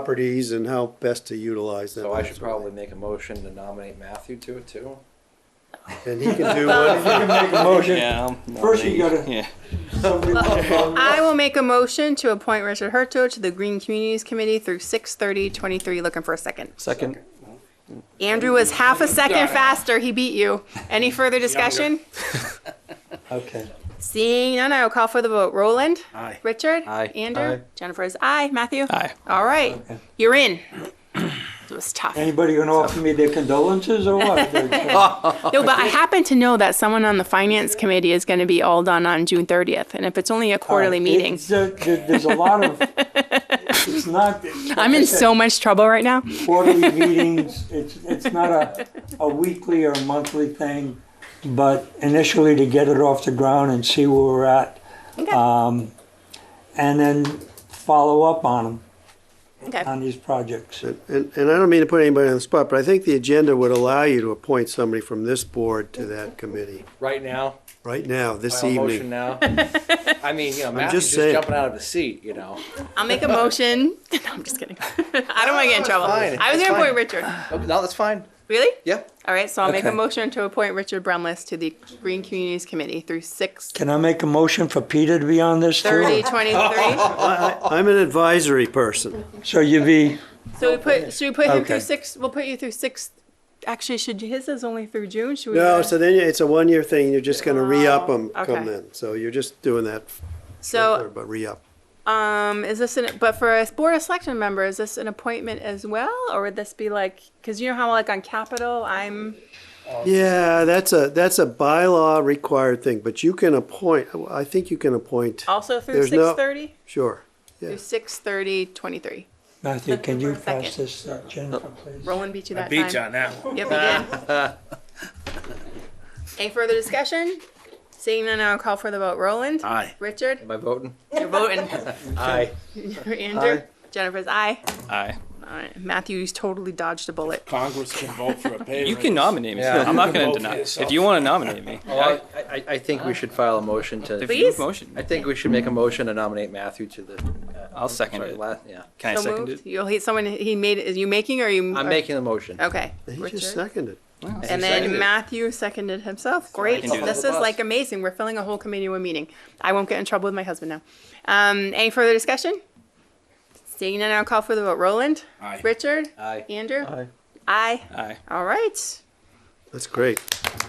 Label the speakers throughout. Speaker 1: properties and how best to utilize them.
Speaker 2: So I should probably make a motion to nominate Matthew to it too.
Speaker 1: And he can do what,
Speaker 3: Make a motion.
Speaker 4: Yeah.
Speaker 3: First you gotta-
Speaker 4: Yeah.
Speaker 3: Somebody pop on.
Speaker 5: I will make a motion to appoint Richard Herto to the Green Communities Committee through 6 23 Looking for a second.
Speaker 4: Second.
Speaker 5: Andrew was half a second faster. He beat you. Any further discussion?
Speaker 3: Okay.
Speaker 5: Seeing none, I'll call for the vote. Roland?
Speaker 1: Aye.
Speaker 5: Richard?
Speaker 4: Aye.
Speaker 5: Andrew?
Speaker 3: Aye.
Speaker 5: Jennifer is aye. Matthew?
Speaker 4: Aye.
Speaker 5: All right. You're in. It was tough.
Speaker 3: Anybody gonna offer me their condolences or what?
Speaker 5: No, but I happen to know that someone on the finance committee is going to be all done on June 30th. And if it's only a quarterly meeting,
Speaker 3: It's, uh, there- There's a lot of, it's not.
Speaker 5: I'm in so much trouble right now.
Speaker 3: Quarterly meetings, it's, it's not a, a weekly or monthly thing, but initially to get it off the ground and see where we're at. Um, and then follow up on them,
Speaker 5: Okay.
Speaker 3: on these projects.
Speaker 1: and, and I don't mean to put anybody on the spot, but I think the agenda would allow you to appoint somebody from this board to that committee,
Speaker 2: Right now,
Speaker 1: right now, this
Speaker 2: by a motion
Speaker 1: evening.
Speaker 2: now. I mean, you know,
Speaker 1: just
Speaker 2: Matthew's just
Speaker 1: saying.
Speaker 2: jumping out of his seat, you know.
Speaker 5: I'll make a motion. No, I'm just kidding. I don't want to get in trouble.
Speaker 2: fine.
Speaker 5: I
Speaker 2: It's
Speaker 5: was going to
Speaker 2: fine.
Speaker 5: appoint Richard.
Speaker 2: No, that's fine.
Speaker 5: Really?
Speaker 2: Yeah.
Speaker 5: All right, so I'll make a
Speaker 3: Okay.
Speaker 5: motion to appoint Richard Brumless to the Green Communities Committee through 6
Speaker 3: Can I make a motion for Peter to be on this too?
Speaker 5: 30 23.
Speaker 1: I, I- I'm an advisory person.
Speaker 3: So you'd be,
Speaker 5: So we put, should we put him through
Speaker 3: Okay.
Speaker 5: 6? We'll put you through 6. Actually, should his is only through June? Should we?
Speaker 1: No, so then it's a one-year thing, you're just gonna re-up them
Speaker 5: Oh,
Speaker 1: come
Speaker 5: okay. Oh.
Speaker 1: then. So you're just doing that,
Speaker 5: So,
Speaker 1: but re-up.
Speaker 5: um, is this an, but for a Board of Selectmen member, is this an appointment as well? Or would this be like, because you know how like on Capitol, I'm,
Speaker 1: Yeah, that's a, that's a bylaw required thing, but you can appoint, I think you can appoint,
Speaker 5: also through
Speaker 1: There's no-
Speaker 5: 6:30?
Speaker 1: sure.
Speaker 5: Through 6:30, 23.
Speaker 3: Matthew, can you pass
Speaker 5: Second.
Speaker 3: this, uh, Jennifer, please?
Speaker 5: Roland beat you that time.
Speaker 6: Beat you on that one.
Speaker 5: Yep, we did. Any further discussion? Seeing none, I'll call for the vote. Roland?
Speaker 6: Aye.
Speaker 5: Richard?
Speaker 2: Am I voting?
Speaker 5: You're voting.
Speaker 2: Aye.
Speaker 5: Andrew? Jennifer's aye.
Speaker 4: Aye.
Speaker 5: All right, Matthew's totally dodged a bullet.
Speaker 6: Congress can vote for a pay
Speaker 4: You can
Speaker 6: raise.
Speaker 4: nominate me.
Speaker 2: Yeah.
Speaker 4: I'm not going
Speaker 6: Vote
Speaker 4: to
Speaker 6: for
Speaker 4: deny.
Speaker 6: yourself.
Speaker 4: If you want to nominate me,
Speaker 2: I, I, I think we should file a motion
Speaker 4: if
Speaker 2: to,
Speaker 5: Please.
Speaker 4: you have motion,
Speaker 2: I think we should make a motion to nominate Matthew to the.
Speaker 4: I'll second
Speaker 2: sorry,
Speaker 4: it.
Speaker 2: la- Yeah.
Speaker 4: Can I
Speaker 5: So
Speaker 4: second
Speaker 5: moved.
Speaker 4: it?
Speaker 5: You'll hit someone, he made, it. is you making or you?
Speaker 2: I'm making the motion.
Speaker 5: Okay.
Speaker 1: He just
Speaker 5: Richard.
Speaker 1: seconded.
Speaker 5: And
Speaker 2: Seconded.
Speaker 5: then Matthew seconded himself. Great.
Speaker 4: can do
Speaker 5: This
Speaker 2: that.
Speaker 5: is like amazing. We're filling a whole committee in a meeting. I won't get in trouble with my husband now. Um, any further discussion? Seeing none, I'll call for the vote. Roland?
Speaker 6: Aye.
Speaker 5: Richard?
Speaker 2: Aye.
Speaker 5: Andrew?
Speaker 2: Aye.
Speaker 5: Aye.
Speaker 4: Aye.
Speaker 5: All right.
Speaker 1: That's great.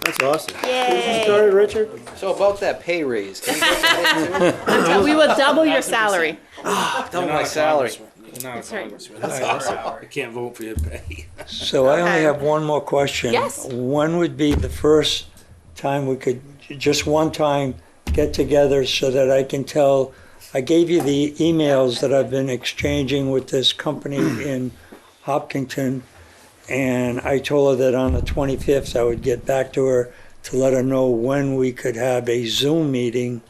Speaker 1: That's awesome.
Speaker 5: Yay.
Speaker 1: Sorry, Richard?
Speaker 2: So about that pay raise, can you get that into
Speaker 5: We will double your salary.
Speaker 2: double my salary?
Speaker 6: You're not a
Speaker 5: right.
Speaker 6: congressman. That's awesome. I can't vote for your pay.
Speaker 3: So I only
Speaker 5: Okay.
Speaker 3: have one more question.
Speaker 5: Yes.
Speaker 3: When would be the first time we could, just one time, get together so that I can tell? I gave you the emails that I've been exchanging with this company in Hopkinton, and I told her that on the 25th I would get back to her to let her know when we could have a Zoom meeting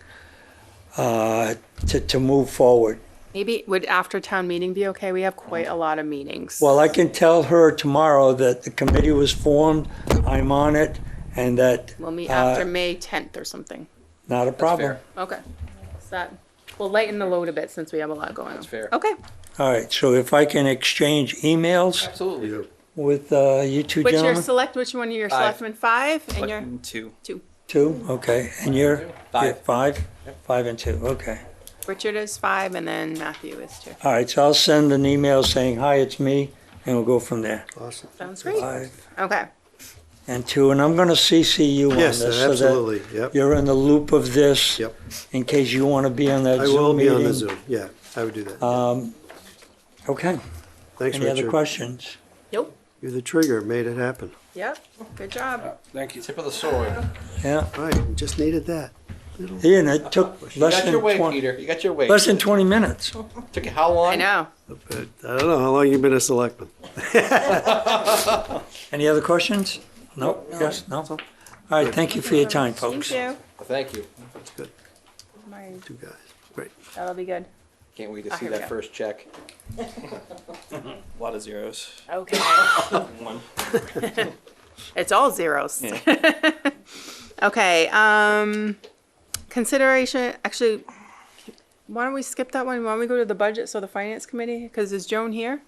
Speaker 3: uh, to, to move forward.
Speaker 5: Maybe would after town meeting be okay? We have quite a lot of meetings.
Speaker 3: Well, I can tell her tomorrow that the committee was formed, I'm on it, and that,
Speaker 5: We'll meet
Speaker 3: uh,
Speaker 5: after May 10th or something.
Speaker 3: not a problem.
Speaker 2: fair.
Speaker 5: Okay. Is that, we'll lighten the load a bit since we have a lot going on. That's
Speaker 2: fair.
Speaker 5: Okay.
Speaker 3: All right, so if I can exchange emails
Speaker 2: Absolutely.
Speaker 3: with uh, you two
Speaker 5: Which your
Speaker 3: gentlemen?
Speaker 5: select, which one of your selectmen, five, and your,
Speaker 4: Selectman two.
Speaker 3: Two, okay, and you're?
Speaker 4: Five.
Speaker 3: you're Five? Five and two, okay.
Speaker 5: Richard is five, and then Matthew is two.
Speaker 3: All right, so I'll send an email saying, hi, it's me, and we'll go from there.
Speaker 1: Awesome.
Speaker 5: Sounds great.
Speaker 3: Five
Speaker 5: Okay.
Speaker 3: and two, and I'm gonna CC you on this.
Speaker 1: Yes,
Speaker 3: so that
Speaker 1: absolutely, yep.
Speaker 3: You're in the loop of this.
Speaker 1: Yep.
Speaker 3: In case you wanna be on that
Speaker 1: I
Speaker 3: Zoom meeting. Um,
Speaker 1: will be on the Zoom, yeah, I would do that.
Speaker 3: Okay,
Speaker 1: Thanks,
Speaker 3: any other
Speaker 1: Richard.
Speaker 3: questions?
Speaker 5: Nope.
Speaker 1: You're the trigger, made it happen.
Speaker 5: Yep. Good job.
Speaker 6: Thank you.
Speaker 2: Tip of the sword.
Speaker 3: Yeah.
Speaker 1: Right, just needed that.
Speaker 3: Ian, it took
Speaker 2: You
Speaker 3: less
Speaker 2: got your
Speaker 3: than
Speaker 2: way,
Speaker 3: twenty,
Speaker 2: Peter. You got your way.
Speaker 3: less than twenty minutes.
Speaker 2: Took you how long?
Speaker 5: I know.
Speaker 1: But I don't know, how long you been a selectman?
Speaker 3: Any other questions? No, yes, no? All right, thank you for your time, folks.
Speaker 5: Thank you.
Speaker 2: Thank you.
Speaker 5: My-
Speaker 1: Two guys, great.
Speaker 5: That'll be good.
Speaker 2: Can't wait to
Speaker 5: Oh,
Speaker 2: see
Speaker 5: here we
Speaker 2: that
Speaker 5: go.
Speaker 2: first check.
Speaker 4: A lot of zeros.
Speaker 5: Okay.
Speaker 4: One.
Speaker 5: It's all zeros. okay. Um, consideration. Actually, why don't we skip that one? Why don't we go to the budget, so the finance committee, because is Joan here?